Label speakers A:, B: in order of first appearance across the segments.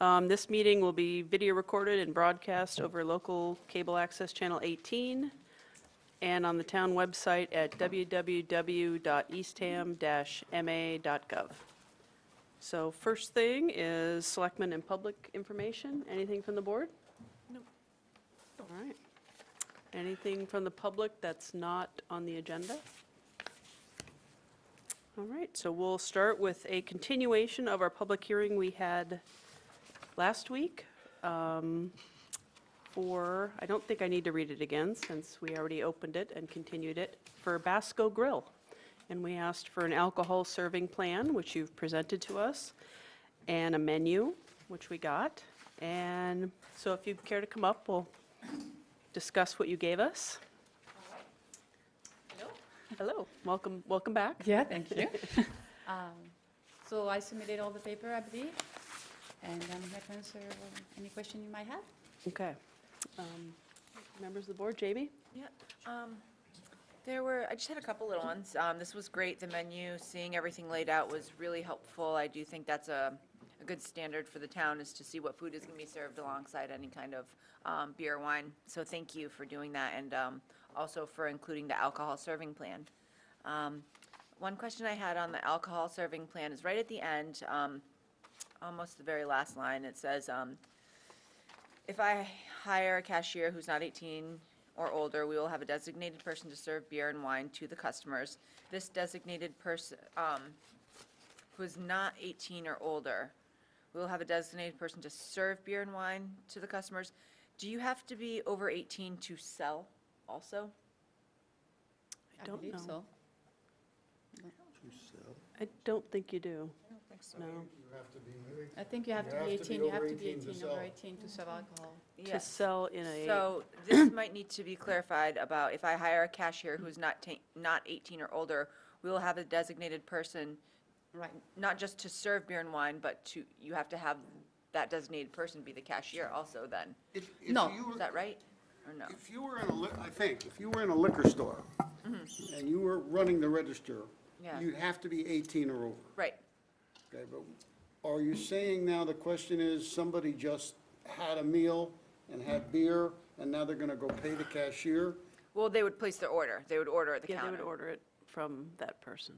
A: Um, This meeting will be video recorded and broadcast over local cable access channel 18 and on the town website at www.eastham-ma.gov. So first thing is selectmen and public information. Anything from the board? No. All right. Anything from the public that's not on the agenda? All right, so we'll start with a continuation of our public hearing we had last week. um, For, I don't think I need to read it again, since we already opened it and continued it, for Basco Grill. And we asked for an alcohol serving plan, which you've presented to us, and a menu, which we got. And so if you care to come up, we'll discuss what you gave us. Hello, welcome, welcome back.
B: Yeah, thank you. Um, So I submitted all the paper, I believe, and I'm here to answer um, any question you might have.
A: Okay. Um, Members of the board, Jamie?
C: Yeah, um, there were, I just had a couple little ones. Um, this was great, the menu, seeing everything laid out was really helpful. I do think that's a, a good standard for the town is to see what food is gonna be served alongside any kind of, um, beer or wine. So thank you for doing that and, um, also for including the alcohol serving plan. Um, one question I had on the alcohol serving plan is right at the end, um, almost the very last line, it says, um, if I hire a cashier who's not 18 or older, we will have a designated person to serve beer and wine to the customers. This designated person, um, who is not 18 or older, we will have a designated person to serve beer and wine to the customers. Do you have to be over 18 to sell also?
A: I don't
B: believe
A: know.
B: so.
A: I don't think you do.
C: I don't think so.
A: No.
D: You have to be married.
B: I think you have to be 18, you have to be 18, over 18 to serve
A: Mm-hmm.
B: alcohol.
A: To
C: Yes.
A: sell in a,
C: So this might need to be clarified about if I hire a cashier who's not, ta- not 18 or older, we will have a designated person
B: Right.
C: not just to serve beer and wine, but to, you have to have that designated person be the cashier also then.
D: If- if
B: No.
D: you-
C: Is that right? Or no?
D: If you were in a, li- I think, if you were in a liquor store and you were running the register,
C: Mm-hmm. Yeah.
D: you'd have to be 18 or over.
C: Right.
D: Okay, but are you saying now the question is, somebody just had a meal and had beer, and now they're going to go pay the cashier?
C: Well, they would place their order. They would order at the
A: yeah, they would
C: counter.
A: order it from that person.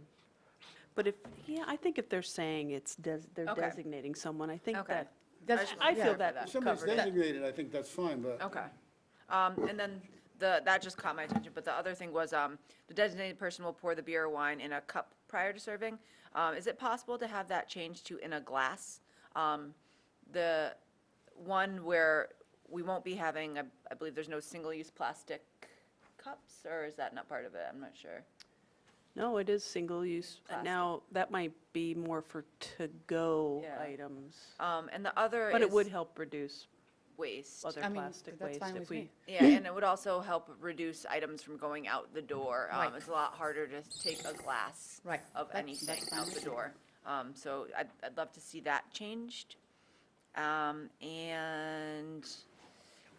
A: But if, yeah, I think if they're saying it's, des- they're
C: Okay.
A: designating someone, I think
C: Okay.
A: that,
B: That's,
A: I feel
C: clarify
A: that
D: If somebody's
C: Covered it.
D: designated, I think that's fine, but.
C: Okay. Um, and then the, that just caught my attention, but the other thing was, um, the designated person will pour the beer or wine in a cup prior to serving. Um, is it possible to have that changed to in a glass? Um, the one where we won't be having, I, I believe there's no single-use plastic cups, or is that not part of it? I'm not sure.
A: no, it is single-use.
C: Plastic.
A: Now, that might be more for to-go
C: Yeah.
A: items,
C: Um, and the other
A: but it
C: is
A: would help reduce
C: waste.
A: other
B: I mean,
A: plastic
B: that's
A: waste
B: fine
A: if
B: with
A: we.
B: me.
C: Yeah, and it would also help reduce items from going out the door. Um,
B: Right.
C: It's a lot harder to take a glass
B: Right.
C: of
B: That's-
C: anything
B: that's fine
C: out
B: with
C: the
B: me.
C: door. Um, So I'd, I'd love to see that changed. Um, And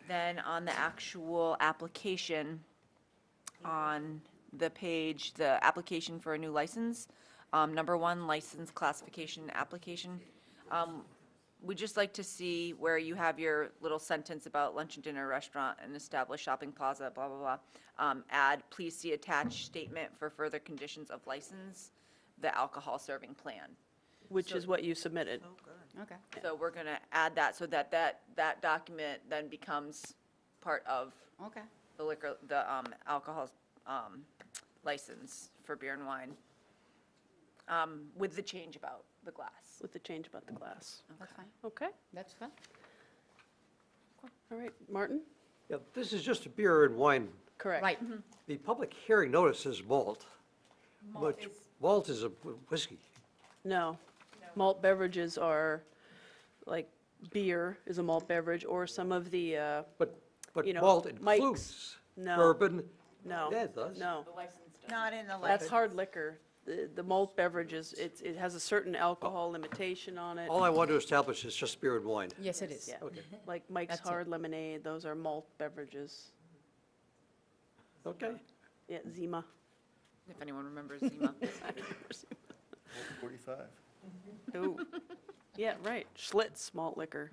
C: then on the actual application, on the page, the application for a new license, um, number one, license classification application. Um, We'd just like to see where you have your little sentence about lunch and dinner restaurant and established shopping plaza, blah, blah, blah. Um, Add, please see attached statement for further conditions of license, the alcohol serving plan.
A: Which
C: So-
A: is what you submitted.
B: okay.
C: So we're going to add that so that that, that document then becomes part of
B: Okay,
C: the liquor, the um, alcohol um, license for beer and wine, um, with the change about the glass.
A: With the change about the glass.
B: that's fine,
A: Okay,
B: that's fine.
A: all right, Martin?
E: Yeah, this is just a beer and wine.
A: Correct.
B: Right,
E: The public hearing notice is malt.
C: Malt
E: but
C: is-
E: Malt is a whiskey.
A: No. Malt beverages are, like, beer is a malt beverage, or some of the, uh,
E: But, but
A: You know,
E: malt
A: Mike's.
E: includes
A: No.
E: bourbon.
A: no.
E: Yeah, it does.
A: No,
F: Not in the
A: that's
F: license.
A: hard liquor. The the malt beverages, it's, it has a certain alcohol limitation on it.
E: All I want to establish is just beer and wine.
B: yes, it is.
A: Yeah, like Mike's
B: That's it.
A: Hard Lemonade, those are malt beverages.
E: Okay?
A: Yeah, Zima.
C: If anyone remembers Zima.
A: Ooh. Yeah, right, Schlitz malt liquor.